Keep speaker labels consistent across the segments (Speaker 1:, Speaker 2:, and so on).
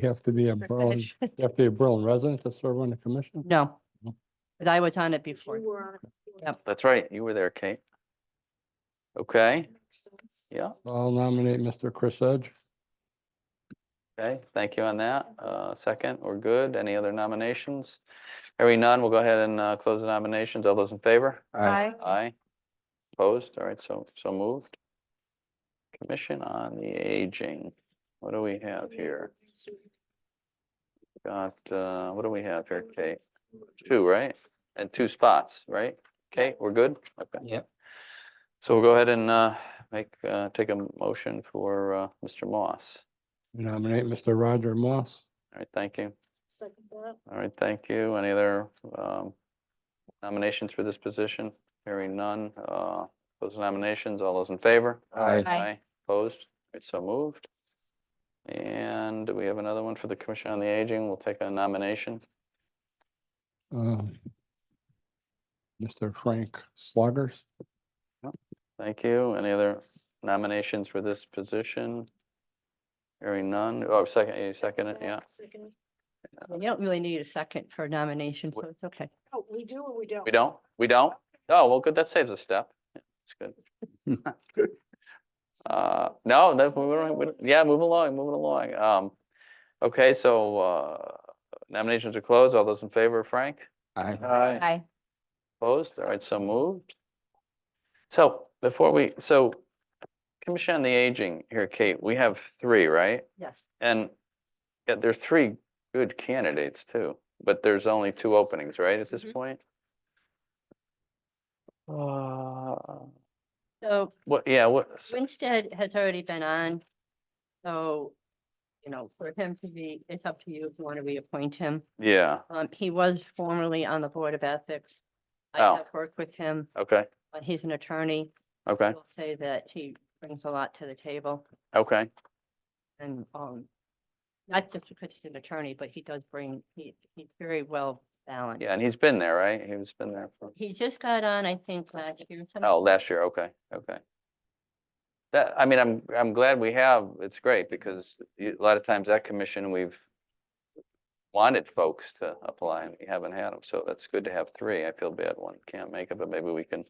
Speaker 1: You have to be a Berlin,
Speaker 2: percentage.
Speaker 1: you have to be a Berlin resident to serve on the commission?
Speaker 2: No,
Speaker 1: No.
Speaker 2: but I was on it before.
Speaker 3: You were on it before.
Speaker 2: Yep.
Speaker 4: That's right, you were there, Kate. Okay, yeah,
Speaker 1: I'll nominate Mr. Chris Edge.
Speaker 4: okay, thank you on that. Uh, second, we're good. Any other nominations? Hearing none, we'll go ahead and, uh, close the nominations. All those in favor?
Speaker 3: Aye.
Speaker 4: Aye. Opposed? All right, so, so moved. Commission on the Aging. What do we have here? Got, uh, what do we have here, Kate? Two, right? And two spots, right? Kate, we're good? Okay.
Speaker 5: Yep.
Speaker 4: So we'll go ahead and, uh, make, uh, take a motion for, uh, Mr. Moss.
Speaker 1: Nominate Mr. Roger Moss.
Speaker 4: All right, thank you.
Speaker 3: Second that.
Speaker 4: All right, thank you. Any other um, nominations for this position? Hearing none. uh, Those nominations, all those in favor?
Speaker 5: Aye.
Speaker 2: Aye.
Speaker 4: Opposed? All right, so moved. And do we have another one for the Commission on the Aging. We'll take a nomination.
Speaker 1: um, Mr. Frank Sluggers.
Speaker 4: Thank you. Any other nominations for this position? Hearing none. Oh, second, you second it, yeah.
Speaker 3: Second.
Speaker 2: You don't really need a second for a nomination, so it's okay.
Speaker 3: Oh, we do or we don't?
Speaker 4: We don't? We don't? Oh, well, good. That saves a step. That's good. Uh, no, that, we don't, we don't- yeah, move along, moving along. Um, okay, so, uh, nominations are closed. All those in favor, Frank?
Speaker 5: Aye.
Speaker 4: Aye.
Speaker 2: Aye.
Speaker 4: Opposed? All right, so moved. So before we, so Commission on the Aging here, Kate, we have three, right?
Speaker 2: Yes,
Speaker 4: And yeah, there's three good candidates too, but there's only two openings, right, at this
Speaker 2: Mhm.
Speaker 4: point? Uh,
Speaker 2: so
Speaker 4: what, yeah, what, s-
Speaker 2: Winstead has already been on. So, you know, for him to be, it's up to you if you want to reappoint him.
Speaker 4: yeah,
Speaker 2: Um, he was formerly on the Board of Ethics. I
Speaker 4: Oh.
Speaker 2: have worked with him,
Speaker 4: okay,
Speaker 2: but he's an attorney.
Speaker 4: okay,
Speaker 2: I'll say that he brings a lot to the table
Speaker 4: okay,
Speaker 2: and, um, not just because he's an attorney, but he does bring, he, he's very well balanced.
Speaker 4: yeah, and he's been there, right? He's been there for,
Speaker 2: He just got on, I think, last year. some-
Speaker 4: oh, last year, okay, okay. That, I mean, I'm, I'm glad we have, it's great, because y- a lot of times that commission, we've wanted folks to apply, and we haven't had them, so that's good to have three. I feel bad one can't make it, but maybe we can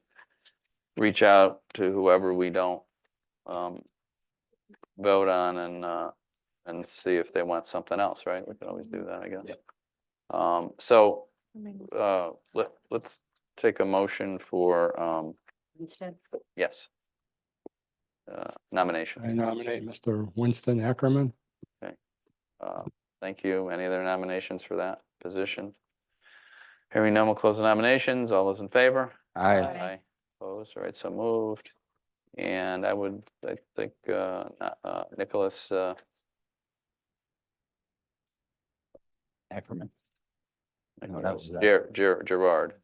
Speaker 4: reach out to whoever we don't um, vote on and, uh, and see if they want something else, right? We can always do that, I guess.
Speaker 5: Yep.
Speaker 4: Um, so,
Speaker 3: I mean,
Speaker 4: uh, let, let's take a motion for, um,
Speaker 2: Winstead.
Speaker 4: yes. Uh, nomination.
Speaker 1: I nominate Mr. Winston Ackerman.
Speaker 4: Uh, Thank you. Any other nominations for that position? Hearing none, we'll close the nominations. All those in favor?
Speaker 5: Aye.
Speaker 3: Aye.
Speaker 4: Opposed? All right, so moved. And I would, I think, uh, no- uh, Nicholas, uh,
Speaker 5: Ackerman. No, that
Speaker 4: Nicholas
Speaker 5: was, uh,
Speaker 4: Ger- Ger- Gerard.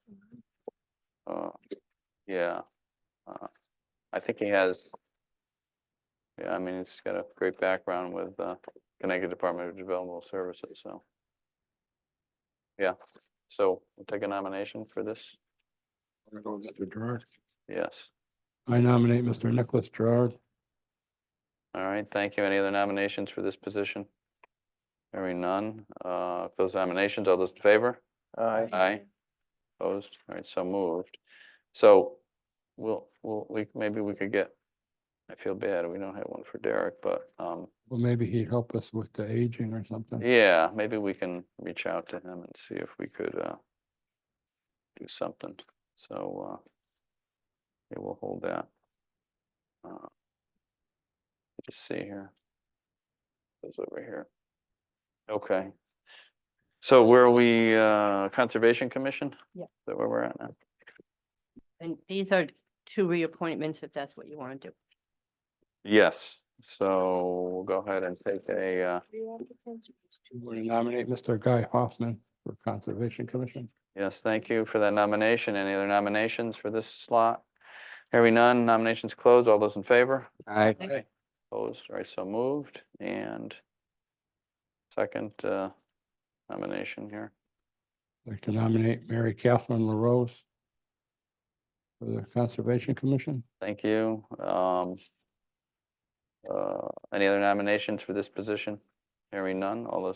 Speaker 4: Uh, Yeah. uh, I think he has, yeah, I mean, he's got a great background with uh, Connecticut Department of Developmental Services, so. Yeah, so we'll take a nomination for this.
Speaker 1: Mr. Gerard.
Speaker 4: Yes.
Speaker 1: I nominate Mr. Nicholas Gerard.
Speaker 4: All right, thank you. Any other nominations for this position? Hearing none. Uh, Those nominations, all those in favor?
Speaker 5: Aye.
Speaker 4: Aye. Opposed? All right, so moved. So we'll, we'll, we, maybe we could get, I feel bad, we don't have one for Derek, but, um,
Speaker 1: Well, maybe he'd help us with the aging or something.
Speaker 4: yeah, maybe we can reach out to him and see if we could, uh, do something. So, uh, yeah, we'll hold that. Uh, Just see here. It's over here. Okay. So where are we, uh, Conservation Commission?
Speaker 2: Yeah.
Speaker 4: Is that where we're at now?
Speaker 2: And these are two reappointments, if that's what you want to do.
Speaker 4: Yes, so we'll go ahead and take a, uh,
Speaker 3: three applicants or just two?
Speaker 1: I'm going to nominate Mr. Guy Hoffman for Conservation Commission.
Speaker 4: yes, thank you for that nomination. Any other nominations for this slot? Hearing none, nominations closed. All those in favor?
Speaker 5: Aye.
Speaker 4: Opposed? All right, so moved and second uh, nomination here.
Speaker 1: I'd like to nominate Mary Catherine LaRose for the Conservation Commission.
Speaker 4: Thank you. Um, uh, Any other nominations for this position? Hearing none. All those